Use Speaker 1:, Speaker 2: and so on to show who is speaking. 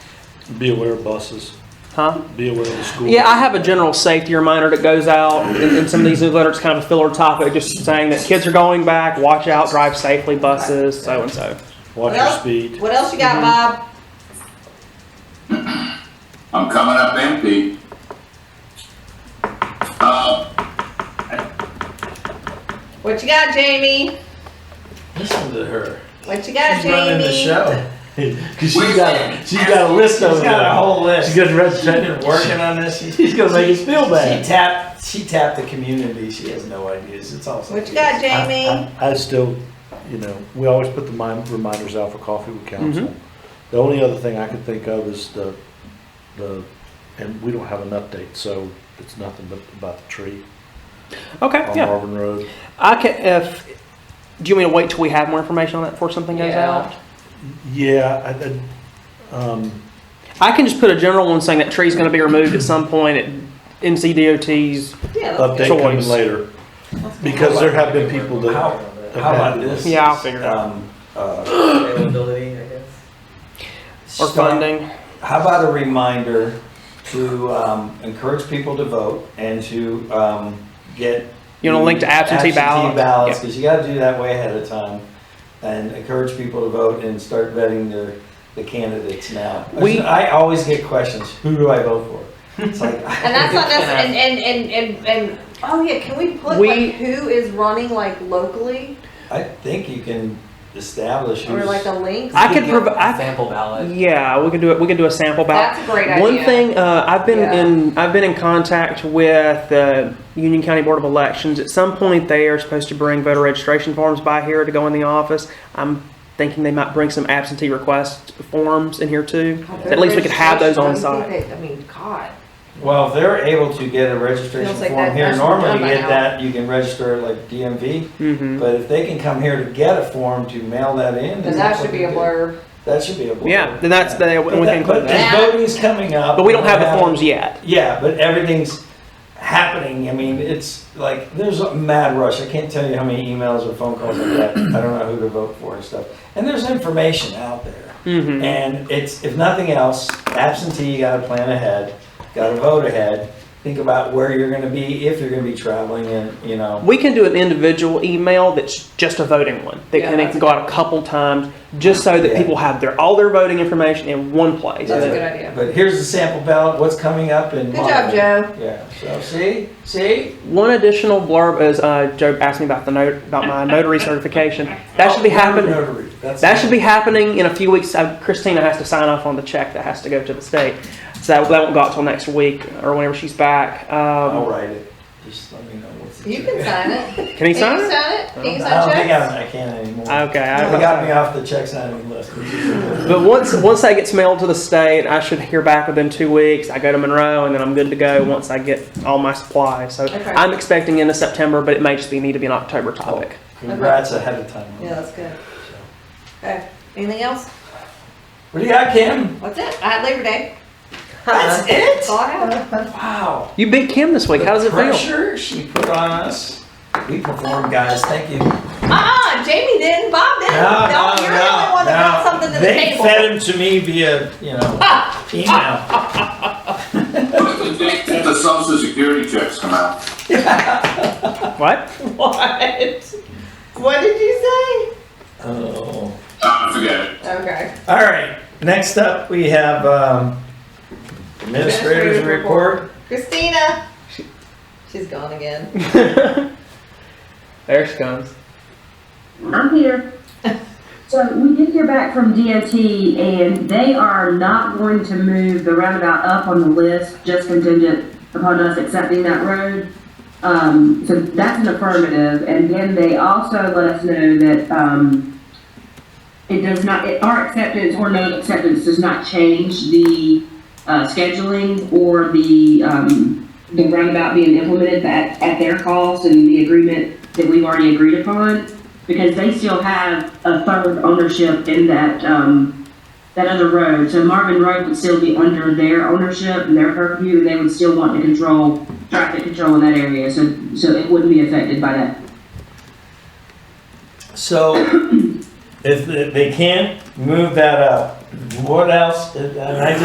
Speaker 1: Be aware of buses,
Speaker 2: Huh?
Speaker 1: be aware of the school.
Speaker 2: Yeah, I have a general safety reminder that goes out in, in some of these newsletters, kind of a filler topic, just saying that kids are going back, watch out, drive safely, buses, so and so.
Speaker 1: Watch your speed.
Speaker 3: What else you got,
Speaker 4: Mm-hmm.
Speaker 3: Bob?
Speaker 5: I'm coming up empty. Uh,
Speaker 3: What you got, Jamie?
Speaker 4: Listen to her.
Speaker 3: What you got,
Speaker 4: She's running the
Speaker 3: Jamie?
Speaker 4: show.
Speaker 1: Cause she's got, she's got a list of
Speaker 4: She's got a
Speaker 1: them.
Speaker 4: whole list.
Speaker 1: She's got a
Speaker 4: She's
Speaker 1: representative.
Speaker 4: been working on this.
Speaker 1: She's gonna make us feel
Speaker 4: She
Speaker 1: bad.
Speaker 4: tapped, she tapped the community. She has no ideas. It's all.
Speaker 3: What you got,
Speaker 4: ideas.
Speaker 3: Jamie?
Speaker 4: uh,
Speaker 1: I- I I still, you know, we always put the mind- reminders out for coffee with
Speaker 2: Mm-hmm.
Speaker 1: council. The only other thing I could think of is the, the, and we don't have an update, so it's nothing but about the tree
Speaker 2: Okay,
Speaker 1: on
Speaker 2: yeah.
Speaker 1: Marvin Road.
Speaker 2: I can, if, do you mean to wait till we have more information on that before something goes
Speaker 3: Yeah.
Speaker 2: out?
Speaker 1: Yeah, I, I, um,
Speaker 2: I can just put a general one saying that tree's gonna be removed at some point at NCDOT's,
Speaker 3: Yeah,
Speaker 4: uh,
Speaker 3: let's go.
Speaker 1: update coming
Speaker 2: Choice.
Speaker 1: later. Because there have been people that,
Speaker 4: How, how about this?
Speaker 2: Yeah, I'll figure it out.
Speaker 4: Um, uh,
Speaker 6: Availability, I guess.
Speaker 2: or
Speaker 4: start-
Speaker 2: funding.
Speaker 4: How about a reminder to um, encourage people to vote and to um, get.
Speaker 2: You wanna link to absentee ballots?
Speaker 4: Mm-hmm. ballots,
Speaker 2: Yeah.
Speaker 4: because you gotta do that way ahead of time. And encourage people to vote and start vetting their, the candidates now.
Speaker 2: We-
Speaker 4: I always get questions, who do I vote for? It's like.
Speaker 3: And that's not
Speaker 4: uh,
Speaker 3: necessarily, and, and, and, and, and, oh yeah, can we put
Speaker 2: We-
Speaker 3: like who is running like locally?
Speaker 4: I think you can establish
Speaker 3: Or like
Speaker 4: who's.
Speaker 3: the links?
Speaker 2: I could
Speaker 6: Get
Speaker 2: provide,
Speaker 6: a
Speaker 2: I,
Speaker 6: Sample ballot.
Speaker 2: yeah, we can do it, we can do a sample ballot.
Speaker 3: That's a great idea.
Speaker 2: One thing uh, I've been
Speaker 3: Yeah.
Speaker 2: in I've been in contact with the Union County Board of Elections. At some point, they are supposed to bring voter registration forms by here to go in the office. I'm thinking they might bring some absentee request forms in here too. At least we could have those on site.
Speaker 3: I mean, God.
Speaker 4: Well, if they're able to get a registration
Speaker 3: Feels like
Speaker 4: form
Speaker 3: that-
Speaker 4: here,
Speaker 3: that's what
Speaker 4: normally
Speaker 3: we've
Speaker 4: you
Speaker 3: done by
Speaker 4: get
Speaker 3: now.
Speaker 4: that, you can register like DMV.
Speaker 2: hmm
Speaker 4: But if they can come here to get a form to mail that
Speaker 3: Then
Speaker 4: in. that's
Speaker 3: that should
Speaker 4: what
Speaker 3: be
Speaker 4: we
Speaker 3: a
Speaker 4: do.
Speaker 3: blurb.
Speaker 4: That should be a blur.
Speaker 2: Yeah, then that's the-
Speaker 4: Yeah.
Speaker 2: we
Speaker 4: But
Speaker 2: can
Speaker 4: that-
Speaker 2: include
Speaker 4: but
Speaker 3: that.
Speaker 4: the voting's coming up.
Speaker 2: But we don't have the
Speaker 4: Yeah.
Speaker 2: forms yet.
Speaker 4: Yeah, but everything's happening. I mean, it's like, there's a mad rush. I can't tell you how many emails or phone calls I get. I don't know who to vote for and stuff. And there's information out there.
Speaker 2: hmm
Speaker 4: And it's, if nothing else, absentee, you gotta plan ahead, gotta vote ahead, think about where you're gonna be, if you're gonna be traveling and, you know.
Speaker 2: We can do an individual email that's just a voting one that
Speaker 3: Yeah,
Speaker 2: can, it
Speaker 3: that's
Speaker 2: can go out a couple times just so that
Speaker 4: Yeah.
Speaker 2: people have their all their voting information in one place.
Speaker 3: That's a
Speaker 4: Yeah.
Speaker 3: good idea.
Speaker 4: But here's the sample ballot, what's coming up in.
Speaker 3: Good job,
Speaker 4: March.
Speaker 3: Joe.
Speaker 4: Yeah, so see, see?
Speaker 2: One additional blurb is uh, Joe asked me about the note about my notary certification. That
Speaker 4: Oh,
Speaker 2: should be happening.
Speaker 4: Notary, that's-
Speaker 2: That should be happening in a few weeks. Uh, Christina has to sign off on the check that has to go to the state, so that, that won't go out till next week or whenever she's back.
Speaker 4: I'll
Speaker 2: Um,
Speaker 4: write it, just let me know what's.
Speaker 3: You can sign it.
Speaker 2: can he sign it?
Speaker 3: Can you sign it? Can you
Speaker 4: I don't
Speaker 3: sign
Speaker 4: think
Speaker 3: checks?
Speaker 4: I, I can anymore.
Speaker 2: Okay.
Speaker 4: They
Speaker 2: I,
Speaker 4: got me off the check signing list.
Speaker 2: but once once that gets mailed to the state, I should hear back within two weeks. I go to Monroe and then I'm good to go once I get all my supplies. So
Speaker 3: Okay.
Speaker 2: I'm expecting into September, but it may just be need to be an October topic.
Speaker 4: Congrats ahead of time.
Speaker 3: Yeah, that's good. Okay, anything else?
Speaker 4: What do you got, Kim?
Speaker 3: What's it? I had Labor Day.
Speaker 4: That's it?
Speaker 3: That's all I have.
Speaker 4: Wow.
Speaker 2: You beat Kim this week. How does it
Speaker 4: the
Speaker 2: feel?
Speaker 4: pressure she put on us. We performed, guys. Thank you. No,
Speaker 3: Ah, Jamie didn't, Bob didn't. No, you're the only one that brought something to the
Speaker 4: they
Speaker 3: table.
Speaker 4: fed him to me via, you know, email.
Speaker 5: the date that the social security checks come out.
Speaker 2: What?
Speaker 3: What? What did you
Speaker 4: Oh.
Speaker 5: Uh, forget it.
Speaker 3: say? Okay.
Speaker 4: All right. Next up, we have um, administrator's
Speaker 3: Administrative
Speaker 4: report.
Speaker 3: Christina. She's gone again.
Speaker 2: There she comes.
Speaker 7: I'm here. So we did hear back from DOT and they are not going to move the roundabout up on the list, just contingent upon us accepting that road. Um, so that's an affirmative. And then they also let us know that, um, it does not, it- our acceptance or no acceptance does not change the, uh, scheduling or the, um, the roundabout being implemented at, at their cost and the agreement that we've already agreed upon because they still have a third ownership in that, um, that other road. So Marvin Road would still be under their ownership and their purview, and they would still want to control, traffic control in that area, so, so it wouldn't be affected by that.
Speaker 4: So, if they- they can't move that up, what else? And I